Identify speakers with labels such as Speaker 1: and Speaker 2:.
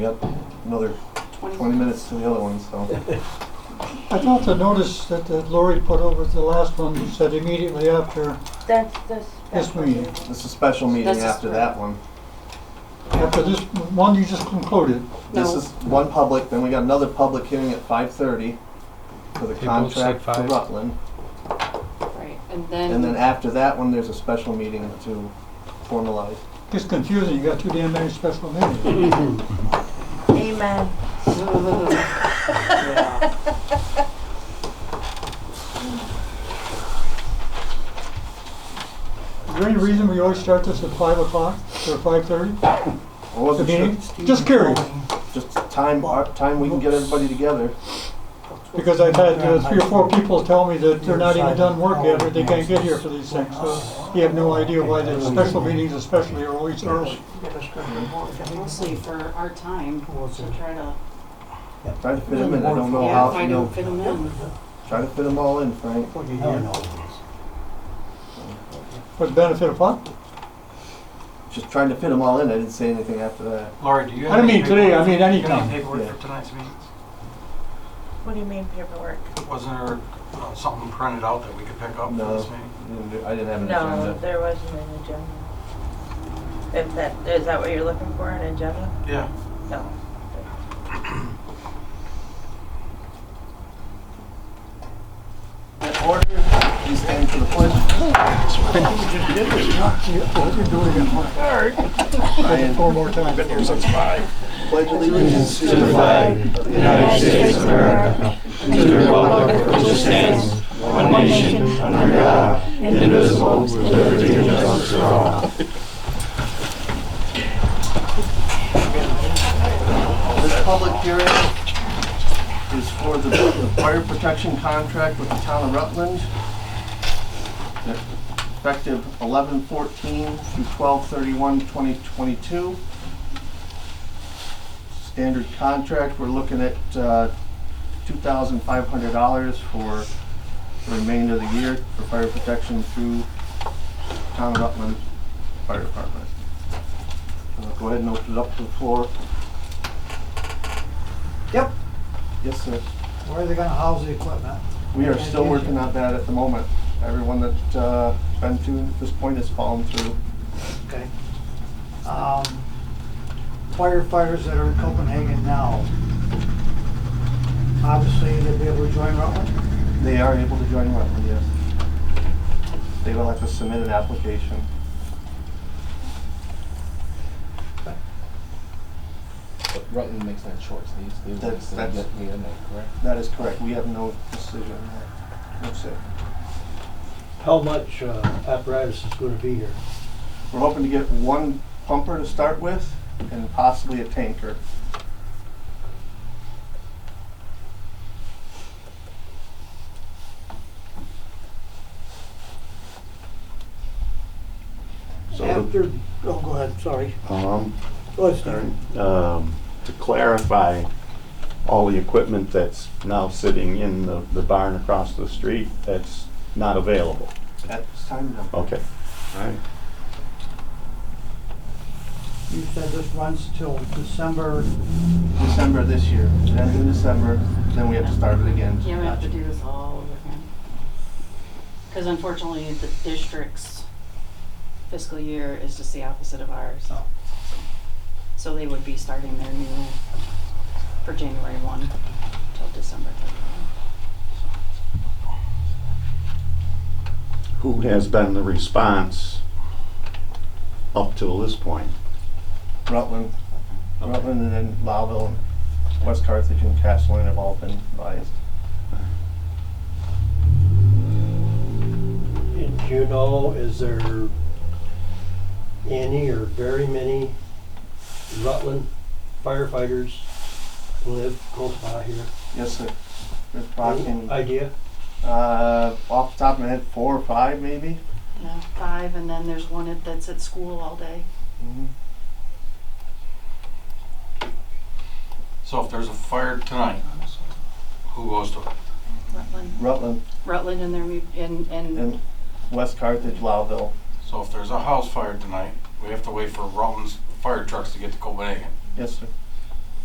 Speaker 1: Yep, another twenty minutes to the other one, so.
Speaker 2: I thought the notice that that Lori put over the last one said immediately after,
Speaker 3: That's this.
Speaker 2: Yes, we-
Speaker 1: This is a special meeting
Speaker 3: That's a
Speaker 1: after
Speaker 3: spread.
Speaker 1: that one.
Speaker 2: after this one you just concluded.
Speaker 1: This
Speaker 3: No.
Speaker 1: is one public, then we got another public hearing at five thirty for the
Speaker 4: They both
Speaker 1: contract
Speaker 4: said
Speaker 1: to
Speaker 4: five.
Speaker 1: Rutland.
Speaker 3: Right, and then.
Speaker 1: And then after that one, there's a special meeting to formalize.
Speaker 2: It's confusing, you got too damn many special meetings.
Speaker 3: Amen.
Speaker 2: Is there any reason we always start this at five o'clock or five thirty?
Speaker 1: I wasn't sure,
Speaker 2: Just curious,
Speaker 1: just time, our time we can get everybody together.
Speaker 2: because I've had uh, three or four people tell me that they're not even done work yet or they can't get here for these things. So you have no idea why the special meetings especially are always early.
Speaker 3: Mostly for our time, to try to,
Speaker 1: Try to fit them in, I don't know
Speaker 3: yeah,
Speaker 1: how,
Speaker 3: find
Speaker 1: you
Speaker 3: them,
Speaker 1: know,
Speaker 3: fit them in.
Speaker 1: try to fit them all in, Frank.
Speaker 2: For the benefit of what?
Speaker 1: Just trying to fit them all in, I didn't say anything after that.
Speaker 4: Laura, do you
Speaker 2: I
Speaker 4: have
Speaker 2: don't
Speaker 4: any
Speaker 2: mean today, I
Speaker 4: paperwork?
Speaker 2: mean
Speaker 4: Do you have any
Speaker 2: anytime.
Speaker 4: paperwork
Speaker 1: Yeah.
Speaker 4: for tonight's meetings?
Speaker 5: What do you mean paperwork?
Speaker 4: Wasn't there uh, something printed out that we could pick up
Speaker 1: No.
Speaker 4: for this meeting?
Speaker 1: Didn't do- I didn't have an
Speaker 5: No,
Speaker 1: agenda.
Speaker 5: there wasn't an agenda. If that, is that what you're looking for, an agenda?
Speaker 4: Yeah.
Speaker 5: No.
Speaker 1: In order, please stand for the pledge.
Speaker 2: I had Four more times.
Speaker 1: Pledge allegiance to
Speaker 6: the flag of the United States of America, and to the republic for which it stands, one nation, under God, indivisible, with liberty and justice for all.
Speaker 1: This public hearing is for the the fire protection contract with the town of Rutland. Effective 11-14 through 12-31-2022. Standard contract, we're looking at, uh, two thousand five hundred dollars for the remainder of the year for fire protection through town of Rutland Fire Department. Uh, Go ahead and open it up to the floor. Yep. Yes, sir.
Speaker 7: Where are they gonna house the equipment?
Speaker 1: We are still working on that at the moment. Everyone that, uh, been to at this point has fallen through.
Speaker 7: Okay. Um, Firefighters that are in Copenhagen now, obviously they'll be able to join Rutland?
Speaker 1: They are able to join Rutland, yes. They will have to submit an application.
Speaker 8: But Rutland makes that choice. They, they
Speaker 1: That's-
Speaker 8: that's, that's,
Speaker 1: that's-
Speaker 8: get the end, correct?
Speaker 1: That is correct. We have no decision there. That's it.
Speaker 7: How much uh, apparatus is gonna be here?
Speaker 1: We're hoping to get one pumper to start with and possibly a tanker.
Speaker 7: After, oh, go ahead, sorry.
Speaker 6: Um,
Speaker 7: Go ahead, Steve.
Speaker 6: um, to clarify, all the equipment that's now sitting in the, the barn across the street, that's not available.
Speaker 1: At this time, no.
Speaker 6: Okay. All right.
Speaker 7: You said this runs till December,
Speaker 1: December this year. It ends in December, then we have to start it again.
Speaker 3: Yeah, we have to do this all over again. Because unfortunately, the district's fiscal year is just the opposite of ours.
Speaker 1: Oh.
Speaker 3: So they would be starting their new, for January one till December thirty-one.
Speaker 6: Who has been the response up till this point?
Speaker 1: Rutland, Rutland and then Lowville, West Carthage and Castleton have all been biased.
Speaker 9: And do you know, is there any or very many Rutland firefighters live close by here?
Speaker 1: Yes, sir. There's
Speaker 7: Mm-hmm.
Speaker 9: Any
Speaker 1: talking, uh,
Speaker 9: Idea?
Speaker 1: off the top of my head, four or five maybe.
Speaker 3: Yeah, five, and then there's one at- that's at school all day.
Speaker 1: Mm-hmm.
Speaker 4: So if there's a fire tonight, who goes to it?
Speaker 3: Rutland,
Speaker 1: Rutland
Speaker 3: Rutland and their, mu- and, and,
Speaker 1: and West Carthage, Lowville.
Speaker 4: So if there's a house fire tonight, we have to wait for Rutland's fire trucks to get to Copenhagen.
Speaker 1: Yes, sir.